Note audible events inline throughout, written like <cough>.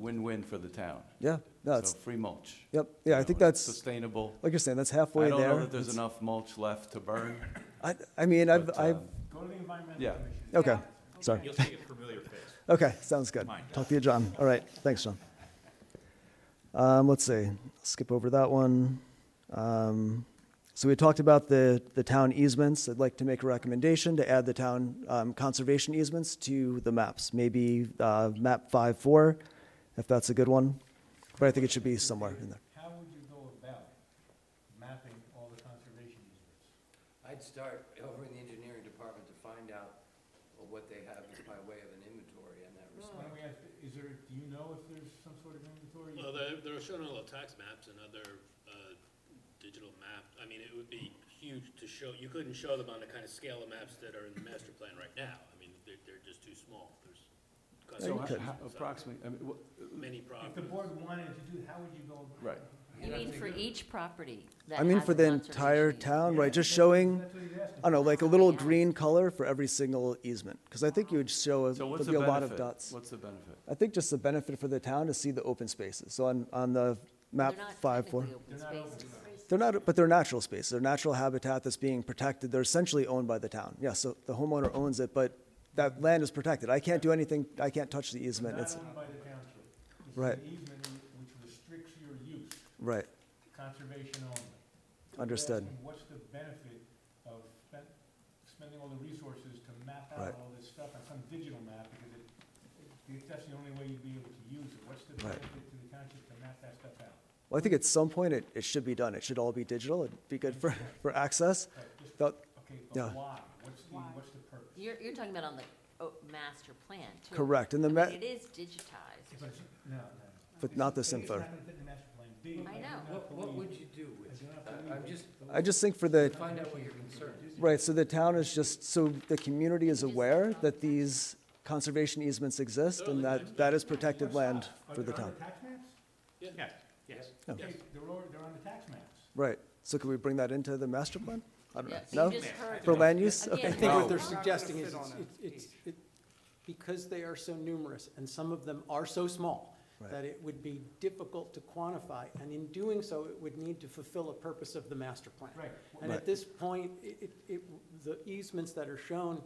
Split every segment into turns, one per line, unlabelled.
win-win for the town.
Yeah, no,
So
it's,
free mulch.
yep, yeah,
You
I
know,
think
it's
that's,
Sustainable.
like you're saying, that's halfway
I don't
there.
know that there's
It's-
enough mulch left to burn.
I, I mean, I've,
but,
I've,
um,
Go to the environmental
Yeah.
commission.
okay, sorry.
You'll see a familiar face.
Okay, sounds good.
Mine
Talk to you, John. All right, thanks, John. Um, let's see, skip over that one. Um, so we talked about the, the town easements. I'd like to make a recommendation to add the town um, conservation easements to the maps. Maybe uh, map five four, if that's a good one. But I think it should be somewhere in there.
How would you go about mapping all the conservation easements?
I'd start over in the engineering department to find out what they have as by way of an inventory in that
Why
respect.
don't we ask, is there, do you know if there's some sort of inventory?
Well, they're, they're showing all the tax maps and other, uh, digital map, I mean, it would be huge to show, you couldn't show them on the kind of scale of maps that are in the master plan right now, I mean, they're, they're just too small, there's.
So
conservation
ho- ho-
zones out
approximately, I mean, wha-
there, Many
If the
problems.
board wanted to do, how would you go? about
right.
You
You
don't
mean
think
for
that-
each property that
I mean,
has
for
a
the
conservation
entire
easement?
town,
Yeah,
right, just
that's-
showing,
That's what he's asking.
I don't know, like a little
Yeah.
green color for every single easement. Because I think you would show, a-
So what's
there'd
the
be a
benefit?
lot of dots.
What's the benefit?
I think just the benefit for the town to see the open spaces. So on, on the map
They're not
five four,
technically open spaces.
they're not, but they're natural spaces. They're natural habitat that's being protected. They're essentially owned by the town. Yeah, so the homeowner owns it, but that land is protected. I can't do anything. I can't touch the easement.
Not
It's,
owned by the township. It's
Right.
an easement which restricts your use,
right,
conservation only. We're
understood.
asking What's the benefit of spend- spending all the resources to map out
Right.
all this stuff on some digital map? Because it- it, that's the only way you'd be able to use it. What's the
Right.
benefit to the township to map that stuff out?
Well, I think at some point it, it should be done. It should all be digital. It'd be good for, <laughs> for access.
Right, just-
That-
Okay,
Yeah.
but why? What's the, what's the purpose?
You're, you're talking about on the oh, master plan, too.
Correct, and the
I
ma-
mean, it is digitized.
But it's- No, no.
But not this
It's
info.
not gonna fit in the master plan. B,
I
I do
know.
not
What, what
believe-
would you do with
I do
it?
not
I-
believe
I'm
it.
just,
I just think for the,
find out what your concern is.
Right, so the town is just, so the community is aware that these conservation easements exist and that, that is protected land
Are
for the
they on
town.
tax maps?
Yeah, yes,
Yeah.
yes.
Okay, they're, all- they're on the tax maps.
Right, so could we bring that into the master plan? I don't know,
Yeah, so
no?
you just heard
For
that.
land use?
Again,
Okay,
I think
No.
what they're
Not gonna
suggesting is,
fit
it's,
on a
it's, it's- it, because they are so numerous, and some of them are so small,
Right.
that it would be difficult to quantify, and in doing so, it would need to fulfill a purpose of the master plan.
Right.
And
Right.
at this point, it, it- it, the easements that are shown,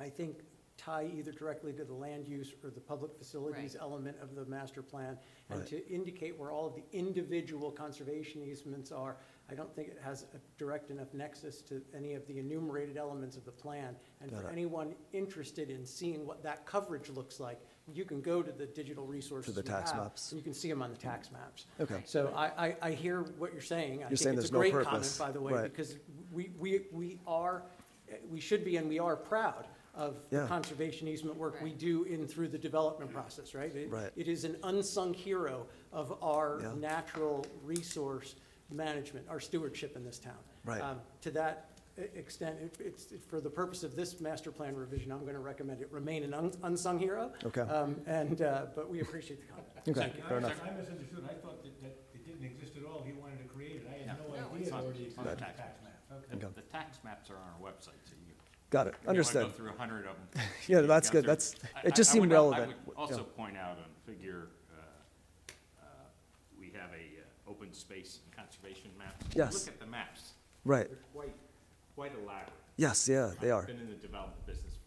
I think, tie either directly to the land use or the public facilities
Right.
element of the master plan. And
Right.
to indicate where all of the individual conservation easements are, I don't think it has a direct enough nexus to any of the enumerated elements of the plan. And
Got
for
it.
anyone interested in seeing what that coverage looks like, you can go to the digital resources we
tax
have,
maps.
And you can see them on the tax maps.
Okay.
So I, I, I hear what you're saying.
You're
I think
saying there's
it's a
no
great
purpose.
comment, by the way,
Right.
because we, we, we are, eh, we should be and we are proud of the
Yeah.
conservation easement work we
Right.
do in through the development process, right? It-
Right.
It is an unsung hero of our
Yeah.
natural resource management, our stewardship in this town.
Right.
Um, To that e- extent, it- it's, for the purpose of this master plan revision, I'm going to recommend it remain an un- unsung hero.
Okay.
Um, And, uh, but we appreciate the comment.
Okay,
And I-
fair enough.
I misunderstood, I thought that, that it didn't exist at all, he wanted to create it, I had no
No,
idea
it's
it
on-
already
it's
existed
on
on the
tax
tax maps. Okay.
Okay.
The tax maps are on our website, so you.
Got it,
if you wanna
understood.
Go through a hundred of them.
<laughs> Yeah, that's good,
through-
that's,
I- I-
it just
I
seemed
would al-
relevant.
I would
Yeah.
also point out on figure, uh, uh, we have a uh, open space and conservation map.
Yes.
Look at the maps.
Right,
They're quite, quite elaborate.
yes, yeah, Uh, they
I've
are,
been in the development business,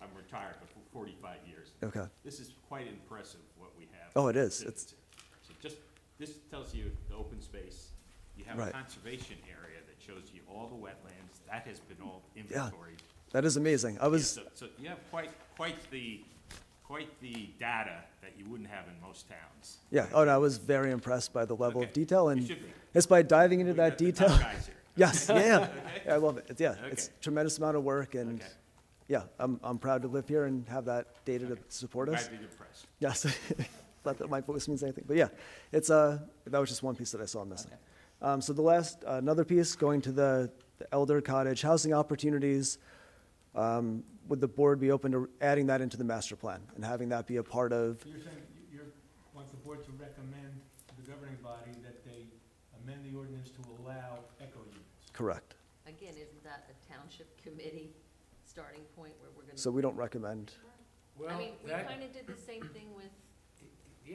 I'm retired, but for forty-five years.
okay.
This is quite impressive, what we have.
Oh, it is.
sitting
It's-
there. So just, this tells you the open space, you have a
Right.
conservation area that shows you all the wetlands, that has been all inventoried.
That is amazing. I
Yeah,
was,
So, so you have quite, quite the, quite the data that you wouldn't have in most towns.
yeah, oh, and I was very impressed by the level of
Okay.
detail
You
and
should be.
it's by diving into
We've
that
got the
detail.
top
<laughs>
guys here.
Yes, yeah,
<laughs>
yeah. Yeah, I love it. It's, yeah, it's
Okay.
tremendous amount of work and,
Okay.
yeah, I'm, I'm proud to live here and have that data to support us.
I'd be impressed.
Yes, <laughs> not that my voice means anything, but yeah, it's, uh, that was just one piece that I saw missing. Um, so the last, another piece, going to the the Elder Cottage Housing Opportunities. Um, would the board be open to adding that into the master plan and having that be a part of,
So You're saying, you- you're, want the board to recommend to the governing body that they amend the ordinance to allow echo units?
correct?
Again, isn't that a township committee starting point where we're gonna?
So we don't recommend,
I
Well,
mean, we
that,
kinda did the same thing with